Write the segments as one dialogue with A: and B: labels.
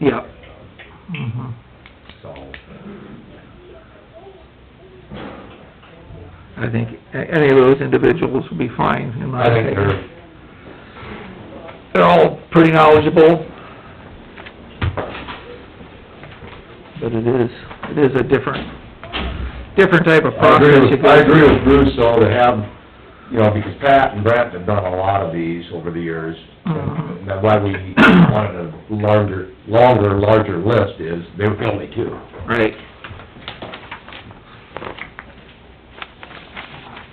A: Yep.
B: Mm-hmm. so.
A: I think a- any of those individuals would be fine, in my
B: I think
A: opinion.
B: they're,
A: They're all pretty knowledgeable. But it is, it is a different, different type of
B: I agree
A: process. you
B: with,
A: go
B: I agree
A: through.
B: with Bruce, though, to have, you know, because Pat and Brent have done a lot of these over the years.
A: Mhm.
C: Mm-hmm.
B: And that's why we wanted a larger, longer, larger list is, they were only two.
A: Right.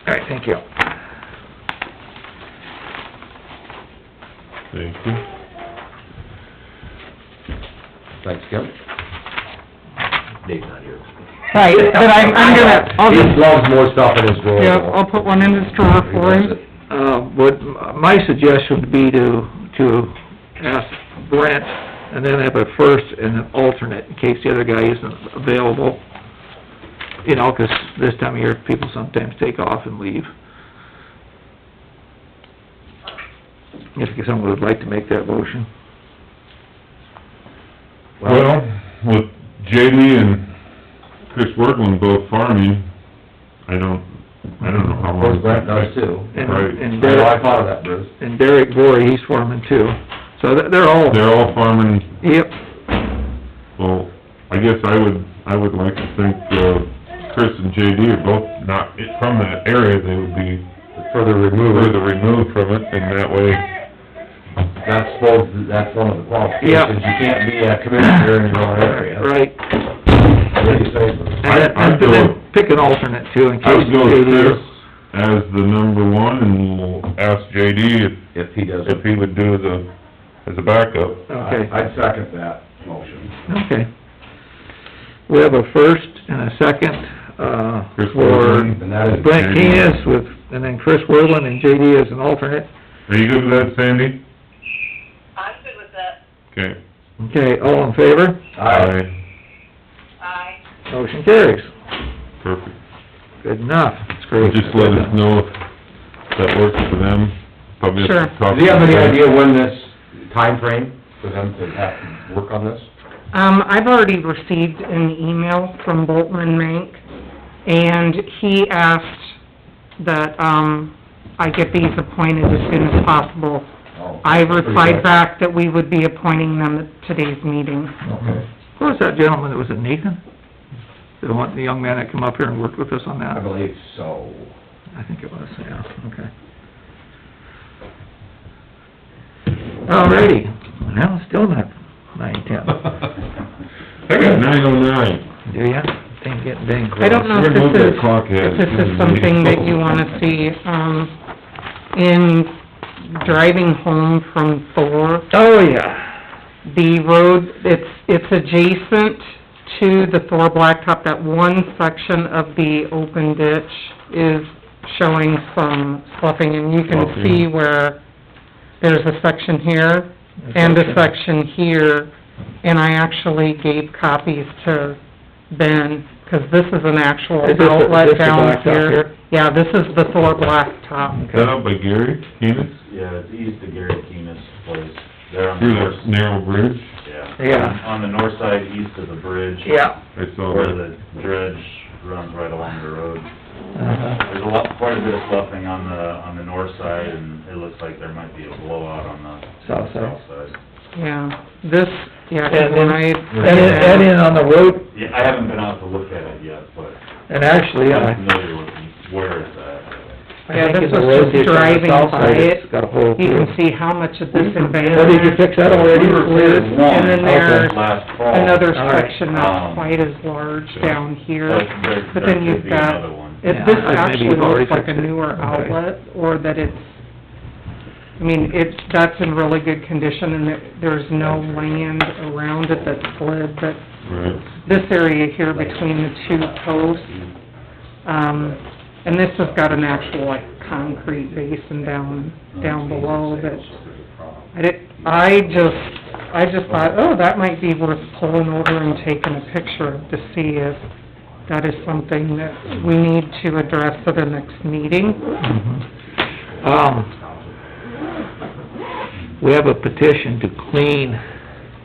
A: All right, thank you.
D: Thank you.
B: Thanks, Kim. Dave's not here.
C: Right, but I'm, I'm gonna, I'll
B: He
C: just,
B: loves more stuff in his drawer.
C: yeah, I'll put one in his drawer for him.
A: Uh, what, my suggestion would be to, to ask Brent, and then have a first and an alternate, in case the other guy isn't available. You know, 'cause this time of year, people sometimes take off and leave. If someone would like to make that motion.
B: Well,
D: Well, with JD and Chris Berglund both farming, I don't, I don't know how
B: of
D: long.
B: course, Brent does too.
A: And-
D: Right.
A: and
B: I know, I
A: Derek-
B: thought of that, Bruce.
A: And Derek Bory, he's foreman too, so they're they're all,
D: They're all farming,
A: yep,
D: well, I guess I would, I would like to think, uh, Chris and JD are both not from that area, they would be
B: Further
D: further
B: removed,
D: removed from it, and that way,
B: that's both, that's one of the
A: Yeah.
B: qualifications. You can't be a commissioner in your own area.
A: right.
B: Really safe.
A: And then-
D: I- I'd
A: and then
D: go-
A: pick an alternate too, in
D: I
A: case
D: would go with
A: JD
D: Chris
A: is
D: as the number one, and we'll ask JD if,
B: If he
D: if
B: doesn't,
D: he would do the, as a backup.
A: Okay,
B: I- I'd second that motion.
A: okay. We have a first and a second, uh,
D: Chris
A: for
D: Worthing.
B: And that is,
A: Brent
D: JD.
A: Keenis with, and then Chris Whirlin and JD as an alternate.
D: Are you good with that, Sandy?
E: I'm good with that.
D: Okay.
A: Okay, all in favor?
B: aye,
E: Aye.
A: Motion carries.
D: Perfect.
A: Good enough, that's great.
D: Just let us know if that works for them. Probably have to
C: Sure.
D: talk
B: do you have any
D: to them.
B: idea when this time frame for them to have to work on this?
C: Um, I've already received an email from Boltman Mank, and he asked that, um, I get these appointed as soon as possible.
B: Oh,
C: I
B: pretty
C: replied
B: good.
C: back that we would be appointing them at today's meeting.
B: Okay,
A: Who was that gentleman that was at Nathan? The one, the young man that come up here and worked with us on that?
B: I believe so.
A: I think it was, yeah, okay. Alrighty, well, still not nine ten,
D: I got nine oh nine.
A: do ya? Thing getting dang close.
C: I don't know if
D: We're gonna move
C: this
D: that
C: is,
D: clock ahead.
C: if this is something that you wanna see, um, in driving home from Thor,
A: Oh, yeah.
C: the road, it's, it's adjacent to the Thor Blacktop, that one section of the open ditch is showing some sloughing, and you can
D: Sloughing.
C: see where there's a section here and a section here, and I actually gave copies to Ben, 'cause this is an actual
A: Is this the- this
C: outlet
A: the
C: down
A: blacktop here?
C: here. Yeah, this is the Thor Blacktop.
D: Set up by Gary Keenest,
F: Yeah, it's east of Gary Keenest's place. They're on the
D: through
F: north,
D: that narrow bridge.
F: yeah.
A: Yeah.
F: On the north side, east of the bridge.
A: Yeah.
D: I saw
F: Where
D: that.
F: the dredge runs right along the road.
A: Uh-huh.
F: There's a lot, quite a bit of sloughing on the, on the north side, and it looks like there might be a blowout on the
A: South side.
F: south side.
C: Yeah, this, yeah, 'cause
A: And then-
C: when I...
A: And in, and in on the road,
F: Yeah, I haven't been out to look at it yet, but
A: and actually, I,
F: I'm familiar with where it's at.
C: Yeah,
A: I think
C: this
A: in the
C: was
A: road
C: just
A: ditch on the
C: driving
A: south side,
C: by
A: it's
C: it.
A: got a hole
C: You
A: through.
C: can see how much of this
A: Oh, did you
C: embankment,
A: fix that already?
F: We were cleared
C: And then there's
F: one last fall.
C: another
A: All right. Um,
C: section not quite as large down here,
F: But there-
C: but then
F: there could
C: you've
F: be
C: got,
F: another one.
C: if
A: Yeah,
C: this
A: I- maybe
C: actually
A: you've already
C: looks like a
A: fixed it.
C: newer
A: Okay.
C: outlet, or that it's, I mean, it's, that's in really good condition, and there- there's no land around it that's slid, but
D: Right.
C: this area here between the two posts, um, and this has got an actual, like, concrete basin down, down below that I did, I just, I just thought, oh, that might be worth pulling over and taking a picture to see if that is something that we need to address at the next meeting. Mm-hmm.
A: Um, we have a petition to clean